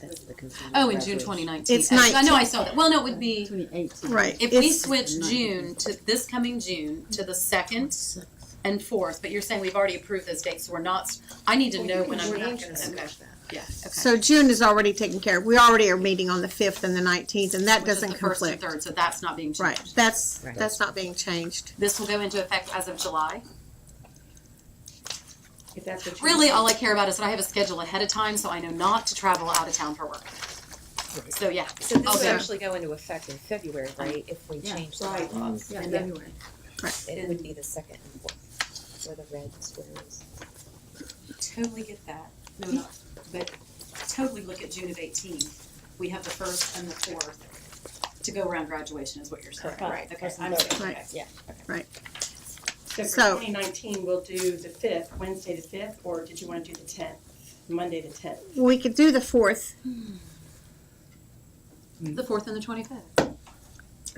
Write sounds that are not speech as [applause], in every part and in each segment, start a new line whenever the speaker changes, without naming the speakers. benefit to the consumer.
Oh, in June
beverage.
twenty nineteen.
It's
I know I saw that. Well, no, it would be,
2018.
Right.
if we
It's-
switch June to this coming June to the second and fourth, but you're saying we've already approved those dates, so we're not, I need to know when I'm.
We're not
okay,
gonna switch that.
Yeah, okay.
So June is already taken care of. We already are meeting on the fifth and the nineteenth, and that
Which is
doesn't
the first and
conflict.
Third, so that's not being
Right,
changed.
that's,
Right.
that's not being changed.
This will go into effect as of July.
If that's what you.
Really, all I care about is that I have a schedule ahead of time, so I know not to travel out of town for work. So, yeah.
So this would
Okay.
actually go into effect in February, right, if we
Yeah.
change the
Right.
bylaws?
Yeah.
And then
February.
It would be the second and fourth, where the red squares.
Totally get that, no, not, but totally look at June of eighteen. We have the first and the fourth to go around graduation is what you're saying.
Correct.
Okay,
Right.
I'm saying,
Right.
okay.
So
So-
for twenty nineteen, we'll do the fifth, Wednesday the fifth, or did you wanna do the tenth, Monday the tenth?
We could do the fourth,
The fourth and the twenty-fifth.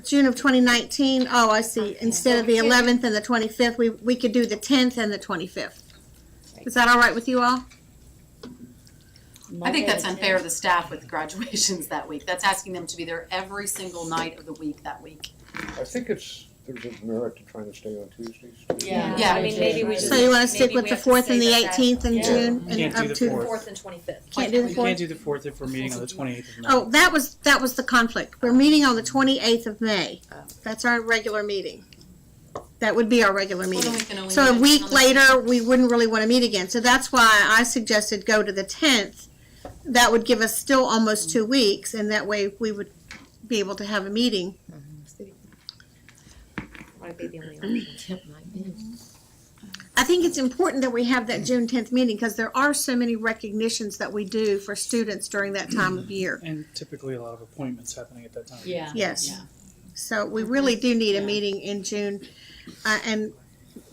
June of twenty nineteen. Oh, I see. Instead of the eleventh and the twenty-fifth, we, we could do the tenth and the twenty-fifth. Is that all right with you all?
I think that's unfair to the staff with graduations that week. That's asking them to be there every single night of the week that week.
I think it's, there's a merit to trying to stay on Tuesdays. too.
Yeah.
Yeah.
I mean, maybe we just.
So you wanna
maybe
stick with
we
the
have to
fourth
say
and the
that that-
eighteenth in
Yeah.
June and
Can't do
up
the
to,
fourth.
Fourth and twenty-fifth.
can't do the
We
fourth?
can't do the fourth if we're meeting on the twenty-eighth of May.
Oh, that was, that was the conflict.
Oh.
We're meeting on the twenty-eighth of May. That's our regular meeting. That would be our regular
Well, then
meeting.
we can only
So a
meet
week
another-
later, we wouldn't really want to meet again. So that's why I suggested go to the tenth. That would give us still almost two weeks, and that way we would be able to have a meeting.
Might be the only option.
I think it's important that we have that June tenth meeting, because there are so many recognitions that we do for students during that time of year.
And typically a lot of appointments happening at that time.
Yes. So we really do need a meeting in June. Uh, and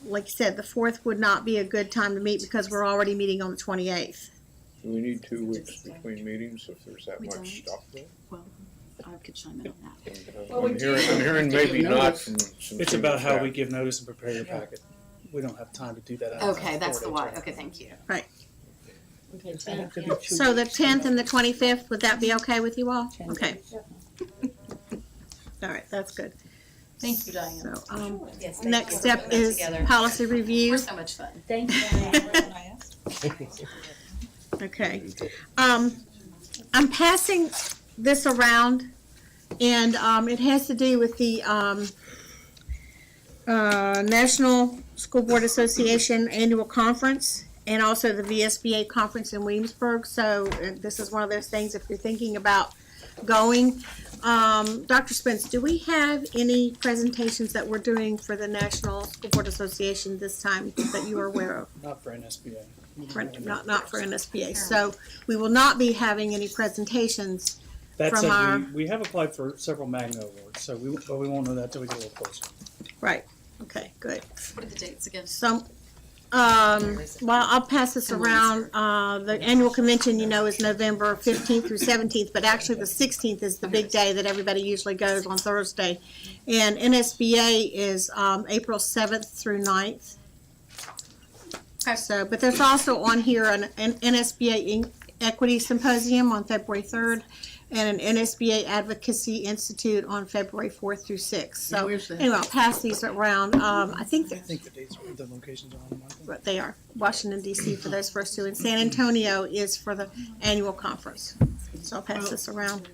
like you said, the fourth would not be a good time to meet because we're already meeting on the twenty-eighth.
Do we need two weeks between meetings if there's that
We don't.
much stuff there?
I could chime in on that.
And, uh,
Well, we
I'm
do.
hearing, I'm hearing maybe
Give
not
notice.
from some.
It's
senior
about how
staff.
we give notice and prepare your packet. We don't have time to do that. outside
Okay,
of
that's the
four
why.
days.
Okay, thank you.
So the tenth and the twenty-fifth, would that be okay with you all? Okay. All right, that's good.
Thank you, Diane.
So, um,
Yes, thank
next
you.
step
Put it
is
together.
policy
We're
review.
so much fun.
[laughs] Okay. Um, I'm passing this around, and, um, it has to do with the, um, uh, National School Board Association Annual Conference, and also the VSBA Conference in Williamsburg, so uh, this is one of those things, if you're thinking about going. Um, Dr. Spence, do we have any presentations that we're doing for the National School Board Association this time that you are aware of?
Not for NSBA.
for- not, not for NSBA. So we will not be having any presentations.
That's,
From our-
we, we have applied for several Magna awards, so we, but we won't know that till we get a little closer.
Right. Okay, good.
What are the dates again?
So, um, well, I'll pass this around. Uh, the annual convention, you know, is November fifteenth through seventeenth, but actually the sixteenth is the big day that everybody usually goes on Thursday. And NSBA is, um, April seventh through 9th.
Okay.
So, but there's also on here an, an NSBA in- Equity Symposium on February third and an NSBA Advocacy Institute on February fourth through sixth. So
Where's that?
anyway, I'll pass these around. Um, I think
I
they're
think the dates, are- the locations are on the market.
but they are. Washington DC for those first two, and San Antonio is for the annual conference. So I'll pass this around.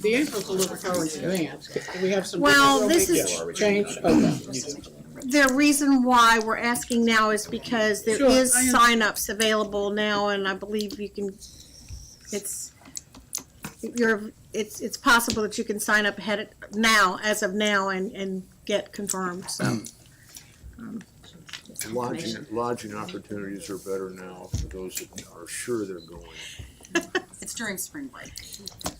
The April's a little far in advance. We have some.
Well, this is,
Change, okay.
the reason why we're asking now is because there
Sure,
is
I am-
signups available now, and I believe you can, it's, you're, it's, it's possible that you can sign up ahead of, now, as of now, and, and get confirmed,
Um,
so.
Lodging, lodging opportunities are better now for those that are sure they're going.
It's during spring break.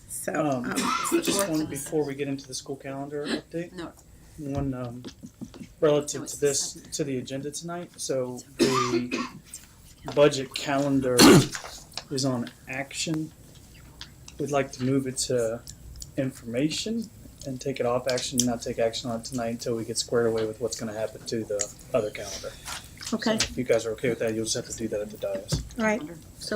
So,
Um,
um,
Just one, before we get into the school calendar update.
No,
one um,
No,
relative
it's
to
the
this,
second.
to the agenda tonight. So the budget calendar is on action. We'd like to move it to information and take it off action, not take action on it tonight until we get squared away with what's gonna happen to the other calendar. So
okay,
If you guys are okay with that, you'll just have to do that at the dais.
all right.